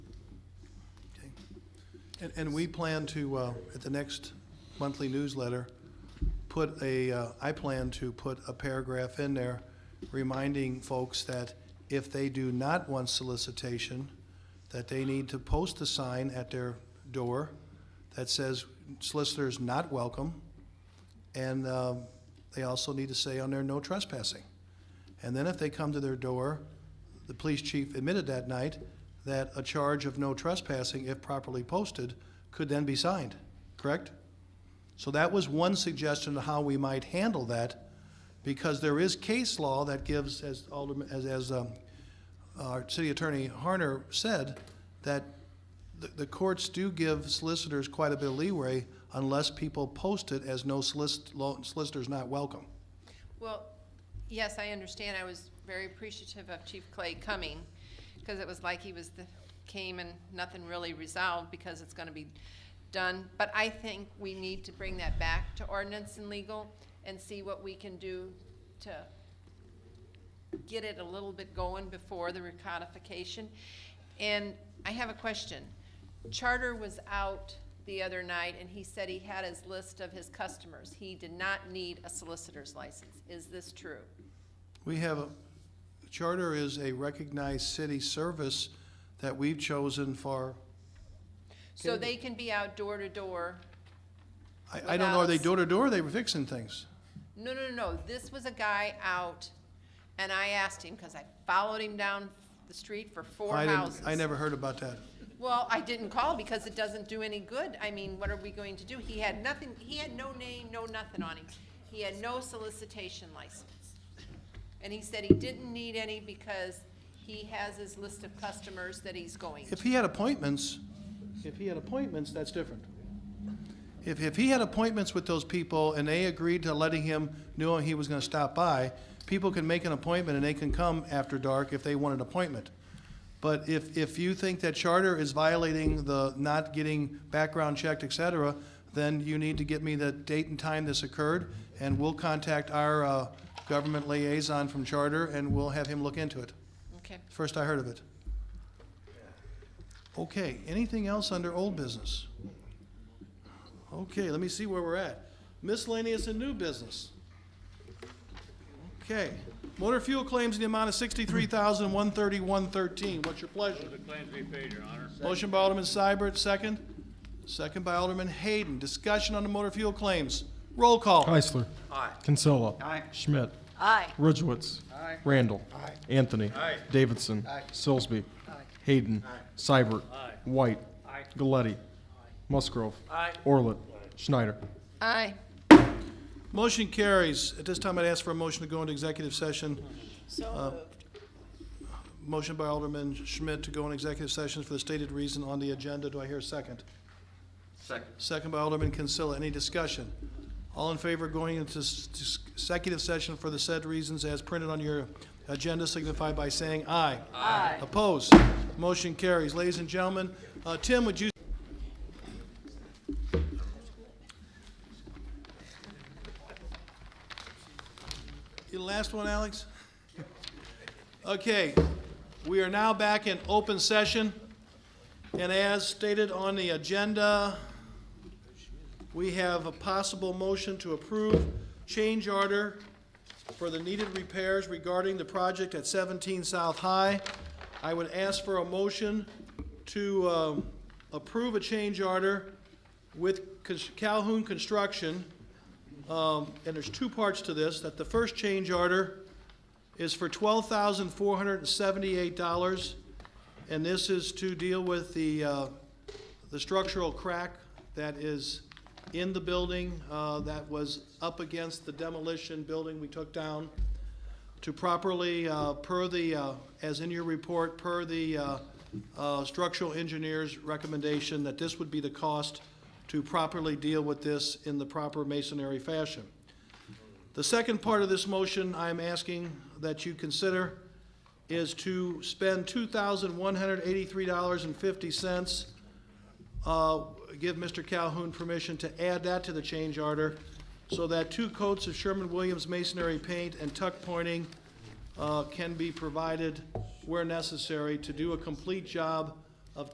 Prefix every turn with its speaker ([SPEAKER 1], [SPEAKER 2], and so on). [SPEAKER 1] And, and we plan to, uh, at the next monthly newsletter, put a, uh, I plan to put a paragraph in there reminding folks that if they do not want solicitation, that they need to post a sign at their door that says solicitors not welcome. And um, they also need to say on there, no trespassing. And then if they come to their door, the police chief admitted that night that a charge of no trespassing, if properly posted, could then be signed, correct? So that was one suggestion of how we might handle that, because there is case law that gives, as Alderman, as, as, um, our city attorney Harner said, that the, the courts do give solicitors quite a bit of leeway unless people post it as no solicit, lo- solicitor's not welcome.
[SPEAKER 2] Well, yes, I understand. I was very appreciative of Chief Clay coming, because it was like he was the, came and nothing really resolved because it's gonna be done. But I think we need to bring that back to ordinance and legal and see what we can do to get it a little bit going before the recodification. And I have a question. Charter was out the other night, and he said he had his list of his customers. He did not need a solicitor's license. Is this true?
[SPEAKER 1] We have, a charter is a recognized city service that we've chosen for,
[SPEAKER 2] So they can be out door to door.
[SPEAKER 1] I, I don't know, are they
[SPEAKER 2] Without
[SPEAKER 1] door to door, or they were fixing things?
[SPEAKER 2] No, no, no, no. This was a guy out, and I asked him, because I followed him down the street for four
[SPEAKER 1] I didn't-
[SPEAKER 2] houses.
[SPEAKER 1] I never heard about that.
[SPEAKER 2] Well, I didn't call because it doesn't do any good. I mean, what are we going to do? He had nothing, he had no name, no nothing on him. He had no solicitation license. And he said he didn't need any because he has his list of customers that he's going to.
[SPEAKER 1] If he had appointments, if he had appointments, that's different. If, if he had appointments with those people and they agreed to letting him, know he was gonna stop by, people can make an appointment and they can come after dark if they want an appointment. But if, if you think that charter is violating the not getting background checked, et cetera, then you need to get me the date and time this occurred, and we'll contact our, uh, government liaison from charter, and we'll have him look into it.
[SPEAKER 2] Okay.
[SPEAKER 1] First I heard of it. Okay, anything else under old business? Okay, let me see where we're at. Miscellaneous and new business. Okay, motor fuel claims in the amount of sixty-three thousand, one thirty-one, thirteen. What's your pleasure?
[SPEAKER 3] The claims be paid, Your Honor.
[SPEAKER 1] Motion by Alderman Seibert, second. Second by Alderman Hayden. Discussion on the motor fuel claims. Roll call.
[SPEAKER 4] Heisler. Kinsella. Schmidt. Ridgewitz. Randall. Anthony. Davidson. Silsby. Hayden. Seibert. White. Galletti. Musgrove. Orlett. Schneider.
[SPEAKER 2] Aye.
[SPEAKER 1] Motion carries. At this time, I'd ask for a motion to go into executive session. Um,
[SPEAKER 2] So
[SPEAKER 1] Motion by Alderman Schmidt to go in executive session for the stated reason on the agenda. Do I hear a second? Second. Second by Alderman Consilla. Any discussion? All in favor of going into s- s- executive session for the said reasons as printed on your agenda signify by saying aye. Aye. Opposed? Motion carries. Ladies and gentlemen, uh, Tim, would you? You the last one, Alex? Okay, we are now back in open session, and as stated on the agenda, we have a possible motion to approve change order for the needed repairs regarding the project at 17 South High. I would ask for a motion to um, approve a change order with Cons- Calhoun Construction, Um, and there's two parts to this, that the first change order is for twelve thousand four hundred and seventy-eight dollars, and this is to deal with the, uh, the structural crack that is in the building, uh, that was up against the demolition building we took down to properly, uh, per the, uh, as in your report, per the uh, uh, structural engineer's recommendation, that this would be the cost to properly deal with this in the proper masonry fashion. The second part of this motion I'm asking that you consider is to spend two thousand one hundred eighty-three dollars and fifty cents. uh, Give Mr. Calhoun permission to add that to the change order so that two coats of Sherman-Williams masonry paint and tuck pointing uh, can be provided where necessary to do a complete job